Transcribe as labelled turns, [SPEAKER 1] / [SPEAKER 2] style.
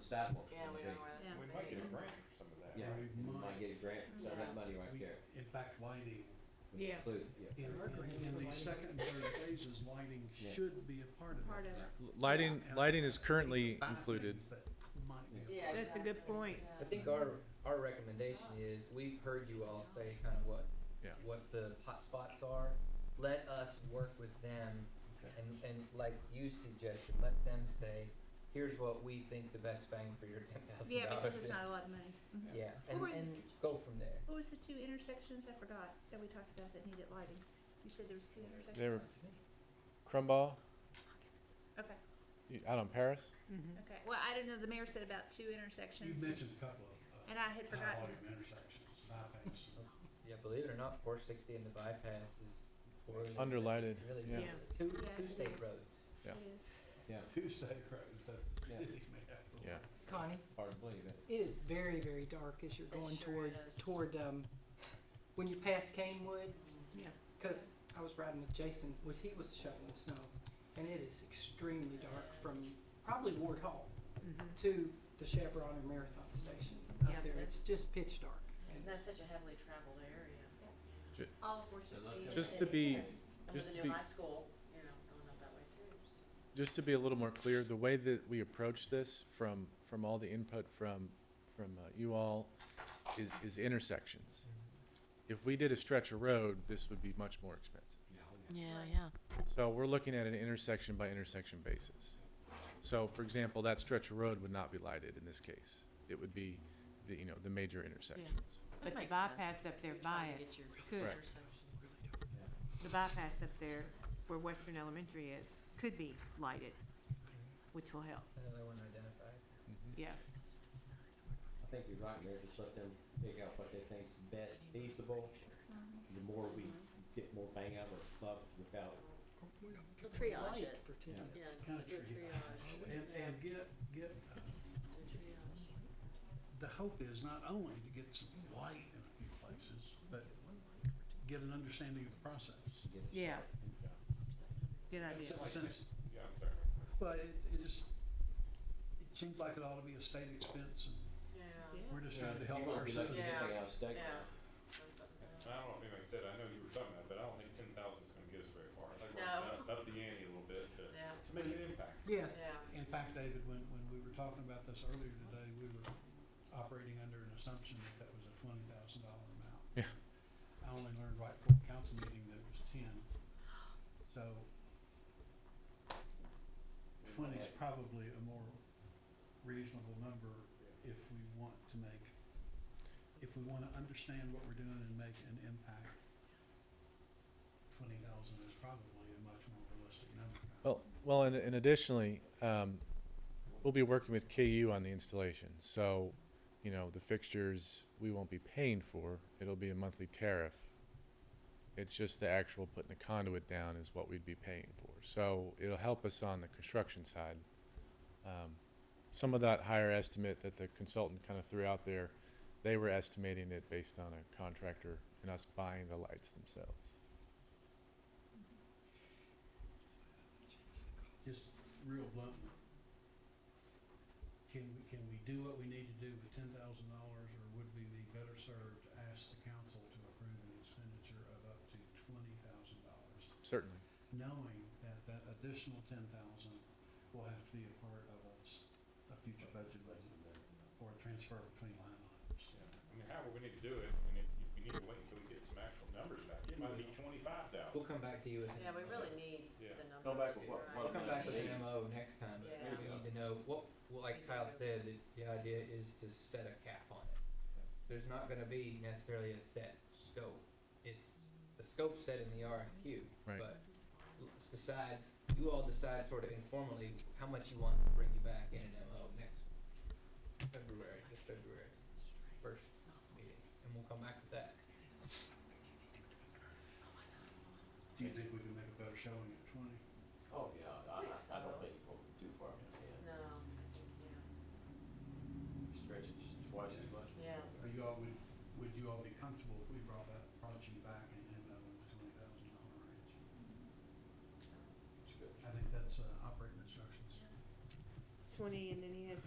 [SPEAKER 1] sidewalks.
[SPEAKER 2] Yeah,
[SPEAKER 1] gonna
[SPEAKER 2] we
[SPEAKER 1] be.
[SPEAKER 2] don't know where that's
[SPEAKER 3] Yeah.
[SPEAKER 2] gonna
[SPEAKER 4] We
[SPEAKER 2] be.
[SPEAKER 4] might get a grant for some of that.
[SPEAKER 1] Yeah,
[SPEAKER 4] right?
[SPEAKER 5] We
[SPEAKER 1] we might
[SPEAKER 5] might.
[SPEAKER 1] get a grant, so
[SPEAKER 3] Yeah.
[SPEAKER 1] that money right
[SPEAKER 5] We-
[SPEAKER 1] there.
[SPEAKER 5] In fact, lighting,
[SPEAKER 1] would
[SPEAKER 6] Yeah.
[SPEAKER 1] include- yeah.
[SPEAKER 5] in,
[SPEAKER 6] Our
[SPEAKER 5] in
[SPEAKER 6] grants for
[SPEAKER 5] in the
[SPEAKER 6] lighting.
[SPEAKER 5] second and third phases, lighting
[SPEAKER 1] Yeah.
[SPEAKER 5] should be a part of it.
[SPEAKER 3] part of it.
[SPEAKER 7] Lighting,
[SPEAKER 5] And
[SPEAKER 7] lighting is currently
[SPEAKER 5] buy
[SPEAKER 7] included.
[SPEAKER 5] things that might be a
[SPEAKER 2] Yeah,
[SPEAKER 3] That's a good
[SPEAKER 2] exactly.
[SPEAKER 3] point.
[SPEAKER 8] I think our, our recommendation is, we've heard you all say kind of what,
[SPEAKER 7] Yeah.
[SPEAKER 8] what the hot spots are. Let us work with them and, and like you suggested, let them say, here's what we think the best bang for your ten thousand dollars is.
[SPEAKER 3] Yeah, because it's not a lot of money.
[SPEAKER 8] Yeah, and,
[SPEAKER 9] Or-
[SPEAKER 8] and go from there.
[SPEAKER 9] What was the two intersections, I forgot, that we talked about that needed lighting? You said there was two intersections?
[SPEAKER 7] They were Crumball,
[SPEAKER 9] Okay,
[SPEAKER 7] you- out on Paris.
[SPEAKER 9] okay, well, I don't know, the mayor said about two
[SPEAKER 5] You
[SPEAKER 9] intersections,
[SPEAKER 5] mentioned a couple of,
[SPEAKER 9] and I had
[SPEAKER 5] uh, high
[SPEAKER 9] forgotten.
[SPEAKER 5] volume intersections, bypasses.
[SPEAKER 8] Yeah, believe it or not, four sixty and the bypass is.
[SPEAKER 7] Underlighted,
[SPEAKER 8] Really
[SPEAKER 7] yeah.
[SPEAKER 3] Yeah.
[SPEAKER 8] Two,
[SPEAKER 9] Yeah,
[SPEAKER 8] two
[SPEAKER 9] it
[SPEAKER 8] state
[SPEAKER 9] is.
[SPEAKER 8] roads.
[SPEAKER 7] Yeah.
[SPEAKER 9] It is.
[SPEAKER 1] Yeah,
[SPEAKER 5] Two state roads that the
[SPEAKER 1] Yeah.
[SPEAKER 5] city may have to.
[SPEAKER 7] Yeah.
[SPEAKER 6] Connie,
[SPEAKER 1] hard to believe it.
[SPEAKER 6] it is very, very dark as you're
[SPEAKER 2] It
[SPEAKER 6] going
[SPEAKER 2] sure
[SPEAKER 6] toward,
[SPEAKER 2] is. Mm.
[SPEAKER 6] toward, um, when you pass Canewood,
[SPEAKER 3] Yeah.
[SPEAKER 6] because I was riding with Jason when he was shoveling snow, and it is extremely dark from probably Ward Hall
[SPEAKER 2] Mm-hmm.
[SPEAKER 6] to the Chevron or Marathon Station
[SPEAKER 2] Yeah,
[SPEAKER 6] up there.
[SPEAKER 2] that's-
[SPEAKER 6] It's just pitch dark.
[SPEAKER 2] And that's such a heavily traveled area.
[SPEAKER 9] All
[SPEAKER 7] Just to be,
[SPEAKER 2] I'm
[SPEAKER 7] Just
[SPEAKER 2] gonna
[SPEAKER 7] to
[SPEAKER 2] do
[SPEAKER 7] be-
[SPEAKER 2] my school, you know, going up that way too, so.
[SPEAKER 7] just to be a little more clear, the way that we approach this from, from all the input from, from uh, you all is, is intersections. If we did a stretch of road, this would be much more expensive.
[SPEAKER 1] oh,
[SPEAKER 2] Yeah,
[SPEAKER 9] yeah.
[SPEAKER 7] So we're looking at an intersection by intersection basis. So for example, that stretch of road would not be lighted in this case. It would be the, you know, the major intersections.
[SPEAKER 2] But
[SPEAKER 10] the bypass up there by it could- The bypass up there where Western Elementary is could be lighted, which will help,
[SPEAKER 8] Another one identifies.
[SPEAKER 7] Mm-hmm.
[SPEAKER 10] yeah.
[SPEAKER 1] I think you're right, Mayor, just let them pick out what they think's best feasible. The more we
[SPEAKER 2] Mm-hmm.
[SPEAKER 1] get more bang out of our buck without,
[SPEAKER 2] Triage it.
[SPEAKER 6] For ten
[SPEAKER 1] Yeah.
[SPEAKER 6] minutes.
[SPEAKER 2] Yeah,
[SPEAKER 5] Kind of
[SPEAKER 2] do a triage.
[SPEAKER 5] triage. And, and get, get, uh,
[SPEAKER 2] Do triage.
[SPEAKER 5] the hope is not only to get some light in a few places, but get an understanding of the process.
[SPEAKER 1] to get.
[SPEAKER 10] Yeah. Good idea.
[SPEAKER 5] Since-
[SPEAKER 4] Yeah, I'm sorry.
[SPEAKER 5] Well, it, it just, it seems like it ought to be a state expense, and
[SPEAKER 2] Yeah.
[SPEAKER 5] we're just trying to help
[SPEAKER 1] You won't
[SPEAKER 5] our
[SPEAKER 1] be looking
[SPEAKER 5] citizens.
[SPEAKER 1] at anything
[SPEAKER 2] Yeah.
[SPEAKER 1] on State Road.
[SPEAKER 2] Yeah.
[SPEAKER 4] I don't know if anybody said, I know you were talking about, it, but I don't think ten thousand is gonna get us very far. I think we're gonna
[SPEAKER 2] No.
[SPEAKER 4] Up the ante a little bit to,
[SPEAKER 2] Yeah.
[SPEAKER 4] to make an impact.
[SPEAKER 6] Yes.
[SPEAKER 2] Yeah.
[SPEAKER 5] In fact, David, when, when we were talking about this earlier today, we were operating under an assumption that that was a twenty thousand dollar amount.
[SPEAKER 7] Yeah.
[SPEAKER 5] I only learned right before the council meeting that it was ten, so twenty's probably a more reasonable number if we want to make, if we wanna understand what we're doing and make an impact. Twenty thousand is probably a much more realistic number.
[SPEAKER 7] Well, well, and, and additionally, um, we'll be working with KU on the installation, so, you know, the fixtures, we won't be paying for, it'll be a monthly tariff. It's just the actual putting the conduit down is what we'd be paying for, so it'll help us on the construction side. Um, Some of that higher estimate that the consultant kind of threw out there, they were estimating it based on a contractor and us buying the lights themselves.
[SPEAKER 5] just real bluntly, can, we can we do what we need to do with ten thousand dollars, or would we be better served to ask the council to approve an expenditure of up to twenty thousand dollars,
[SPEAKER 7] Certainly.
[SPEAKER 5] knowing that that additional ten thousand will have to be a part of a, s- a future budget or a transfer between line items.
[SPEAKER 4] Yeah. I mean, however we need to do it, I mean, if, if we need to wait until we get some actual numbers back, it might be twenty-five
[SPEAKER 8] We'll
[SPEAKER 4] thousand.
[SPEAKER 8] come back to you with. an
[SPEAKER 2] Yeah, we
[SPEAKER 8] MO.
[SPEAKER 2] really need
[SPEAKER 4] Yeah.
[SPEAKER 2] the numbers.
[SPEAKER 1] Go back with what-
[SPEAKER 2] right?
[SPEAKER 1] what
[SPEAKER 8] We'll come back with
[SPEAKER 1] Yeah.
[SPEAKER 8] an MO next time,
[SPEAKER 2] Yeah.
[SPEAKER 8] but we need to know, what, well, like Kyle said, the, the idea is to set a cap on it. There's not gonna be necessarily a set scope, it's, the scope's set in the RFQ,
[SPEAKER 7] Right.
[SPEAKER 8] but let's decide, you all decide sort of informally how much you want to bring you back in an MO next February, this February, first meeting, and we'll come back with that.
[SPEAKER 5] Do you think we can make a better showing at twenty?
[SPEAKER 1] Oh, yeah, I,
[SPEAKER 2] Yes,
[SPEAKER 1] I
[SPEAKER 2] I will.
[SPEAKER 1] don't think you're going too far,
[SPEAKER 2] No, I think, yeah.
[SPEAKER 1] yeah, stretch it just twice as much.
[SPEAKER 2] Yeah.
[SPEAKER 5] Are you all, would, would you all be comfortable if we brought that project back and, and, uh, with the twenty thousand dollar range?
[SPEAKER 1] It's good.
[SPEAKER 5] I think that's uh, operating instructions.
[SPEAKER 10] Twenty, and then he has